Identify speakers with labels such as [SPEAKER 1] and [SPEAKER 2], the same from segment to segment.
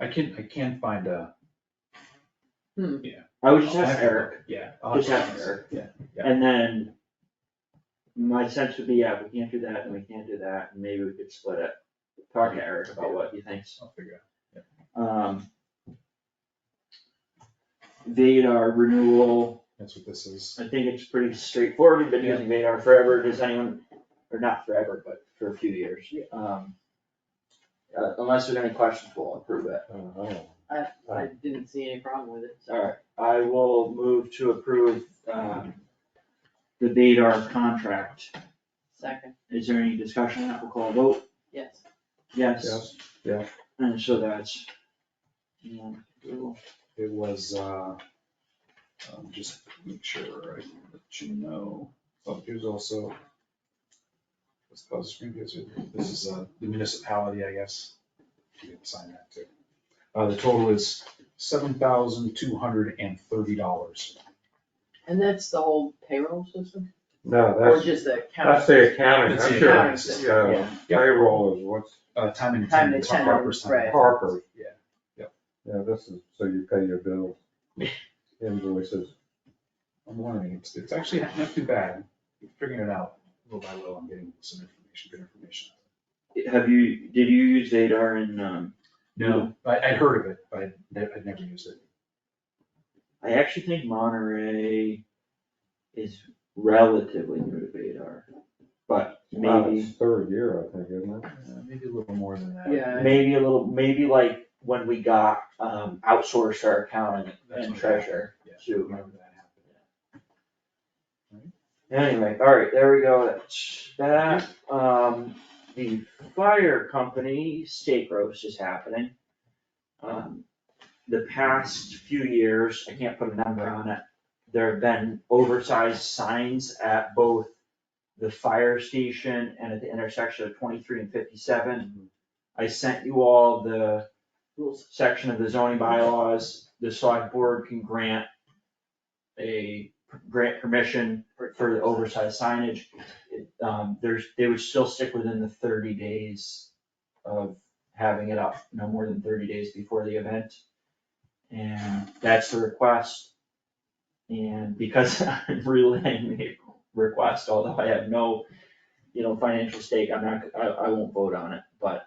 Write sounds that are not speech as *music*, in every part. [SPEAKER 1] I can't, I can't find a.
[SPEAKER 2] I would just
[SPEAKER 1] I'll Oh,
[SPEAKER 2] ask
[SPEAKER 1] have to
[SPEAKER 2] Eric,
[SPEAKER 1] look, Yeah. I'll have
[SPEAKER 2] Just
[SPEAKER 1] to
[SPEAKER 2] ask
[SPEAKER 1] ask.
[SPEAKER 2] Eric.
[SPEAKER 1] Yeah, yeah.
[SPEAKER 2] and then my sense would be, yeah, we can't do that, and we can't do that, and maybe we could split it. Talk to Eric about what he thinks.
[SPEAKER 1] I'll figure out.
[SPEAKER 2] Um. Vadar renewal,
[SPEAKER 3] That's what this is.
[SPEAKER 2] I think it's pretty straightforward, we've been
[SPEAKER 1] Yeah.
[SPEAKER 2] using Vadar forever, does anyone, or not forever, but for a few years. Um. uh, Unless there's any questions, we'll approve it.
[SPEAKER 3] Oh,
[SPEAKER 4] I, I didn't see any problem with it.
[SPEAKER 2] Alright, I will move to approve, um, the Vadar contract.
[SPEAKER 4] Second,
[SPEAKER 2] Is there any discussion? We'll call a vote.
[SPEAKER 4] yes.
[SPEAKER 2] Yes.
[SPEAKER 3] Yes, yeah.
[SPEAKER 2] And so that's. um, approval.
[SPEAKER 3] it was, uh, um, just make sure I let you know, oh, here's also. What's called the screen, gives it- this is, uh, the municipality, I guess. You can sign that too. Uh, the total is seven thousand two hundred and thirty dollars.
[SPEAKER 4] And that's the whole payroll system?
[SPEAKER 5] No,
[SPEAKER 4] Or
[SPEAKER 5] that's,
[SPEAKER 4] just the
[SPEAKER 5] that's
[SPEAKER 4] county?
[SPEAKER 5] the accounting,
[SPEAKER 1] That's the
[SPEAKER 5] I'm sure,
[SPEAKER 4] accounting
[SPEAKER 5] it's,
[SPEAKER 4] system,
[SPEAKER 5] uh,
[SPEAKER 4] yeah.
[SPEAKER 5] payroll is what's
[SPEAKER 3] Uh, time and
[SPEAKER 4] Time and
[SPEAKER 3] attendance,
[SPEAKER 4] attendance,
[SPEAKER 3] Harper's time. and
[SPEAKER 4] right.
[SPEAKER 5] Harper.
[SPEAKER 3] Yeah, yep.
[SPEAKER 5] Yeah, this is, so you pay your bills, invoices.
[SPEAKER 3] I'm learning, it's, it's actually not too bad, figuring it out little by little, I'm getting some information, good information.
[SPEAKER 2] Have you, did you use Vadar in, um,
[SPEAKER 3] No, I, I'd heard of it, but I'd, ne- I'd never used it.
[SPEAKER 2] I actually think Monterey is relatively new to Vadar. But
[SPEAKER 5] Wow,
[SPEAKER 2] maybe,
[SPEAKER 5] it's Third year, I think, isn't it?
[SPEAKER 3] Uh, Maybe a little more than that.
[SPEAKER 4] Yeah.
[SPEAKER 2] maybe a little, maybe like when we got, um, outsourced our accounting
[SPEAKER 3] That's
[SPEAKER 2] and
[SPEAKER 3] what-
[SPEAKER 2] treasure
[SPEAKER 3] Yeah,
[SPEAKER 2] to
[SPEAKER 3] Whenever that happened.
[SPEAKER 2] Anyway, alright, there we go, that's that, um, the fire company steak roast is happening. Um, the past few years, I can't put a number on it, there have been oversized signs at both the fire station and at the intersection of twenty-three and fifty-seven. I sent you all the
[SPEAKER 4] Rules.
[SPEAKER 2] section of the zoning bylaws, the select board can grant a, grant permission for the oversized signage, it, um, there's, they would still stick within the thirty days of having it up, no more than thirty days before the event. And that's the request. And because *laughs* I'm relaying the request, although I have no, you know, financial stake, I'm not, I, I won't vote on it, but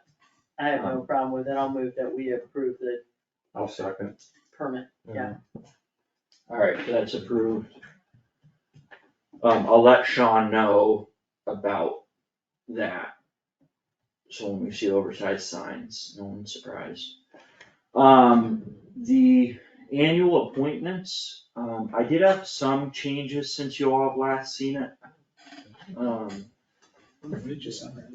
[SPEAKER 4] I have
[SPEAKER 2] um,
[SPEAKER 4] no problem with it. I'll move that we approve the
[SPEAKER 5] I'll second.
[SPEAKER 4] permit. Yeah.
[SPEAKER 2] Alright, so that's approved. Um, I'll let Sean know about that. So when we see oversized signs, no one's surprised. Um, the annual appointments, um, I did have some changes since you all have last seen it. Um,
[SPEAKER 3] When did you send that?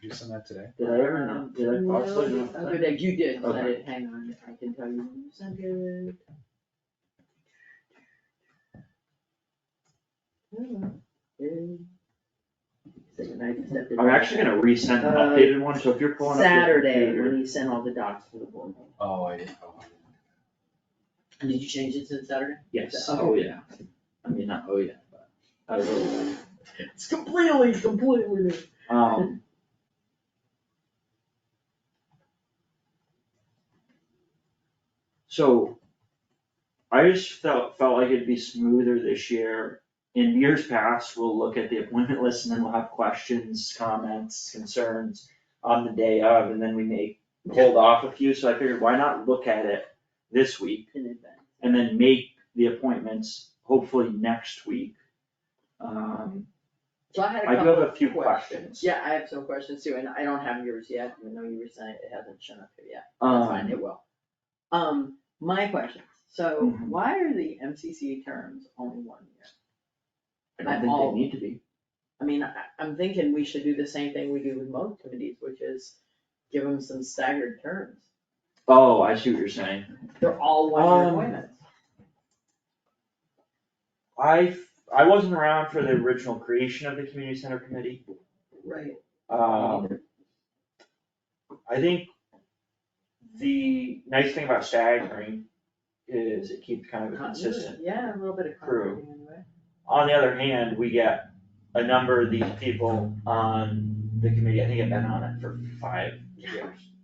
[SPEAKER 3] Did you send that today?
[SPEAKER 2] did I ever know, did I possibly know?
[SPEAKER 4] No, Other day, you did, 'cause I
[SPEAKER 2] Okay.
[SPEAKER 4] didn't hang on, I can tell you. when it was ended. Second night, except it-
[SPEAKER 2] I'm actually gonna resend an updated one, so if you're pulling up your
[SPEAKER 4] Saturday,
[SPEAKER 2] computer-
[SPEAKER 4] when he sent all the docs to the board.
[SPEAKER 3] Oh, I didn't. oh, I didn't.
[SPEAKER 4] Did you change it since Saturday?
[SPEAKER 2] Yes, oh yeah. I mean, not oh yeah, but I will.
[SPEAKER 4] It's completely, completely new. *laughs*
[SPEAKER 2] Um. So. I just felt, felt like it'd be smoother this year. In years past, we'll look at the appointment list and then we'll have questions, comments, concerns on the day of, and then we may hold off a few, so I figured why not look at it this week?
[SPEAKER 4] In advance.
[SPEAKER 2] and then make the appointments hopefully next week. Um,
[SPEAKER 4] So I had a
[SPEAKER 2] I do
[SPEAKER 4] couple
[SPEAKER 2] have
[SPEAKER 4] of
[SPEAKER 2] a few
[SPEAKER 4] questions.
[SPEAKER 2] questions.
[SPEAKER 4] Yeah, I have some questions too, and I don't have yours yet, even though you were saying it hasn't shown up here yet. That's fine,
[SPEAKER 2] Um,
[SPEAKER 4] it will. Um, my questions, so
[SPEAKER 2] Mhm.
[SPEAKER 4] why are the MCC terms only one year?
[SPEAKER 2] I don't think they need to be.
[SPEAKER 4] I mean, I, I'm thinking we should do the same thing we do with most committees, which is give them some staggered terms.
[SPEAKER 2] Oh, I see what you're saying.
[SPEAKER 4] They're all one-year
[SPEAKER 2] Um,
[SPEAKER 4] appointments.
[SPEAKER 2] I, I wasn't around for the original creation of the community center committee.
[SPEAKER 4] Right.
[SPEAKER 2] Um, I think the nice thing about staggering is it keeps kind of it consistent.
[SPEAKER 4] Yeah, a little bit of
[SPEAKER 2] True.
[SPEAKER 4] continuity anyway.
[SPEAKER 2] On the other hand, we get a number of these people on the committee, I think I've been on it for five years.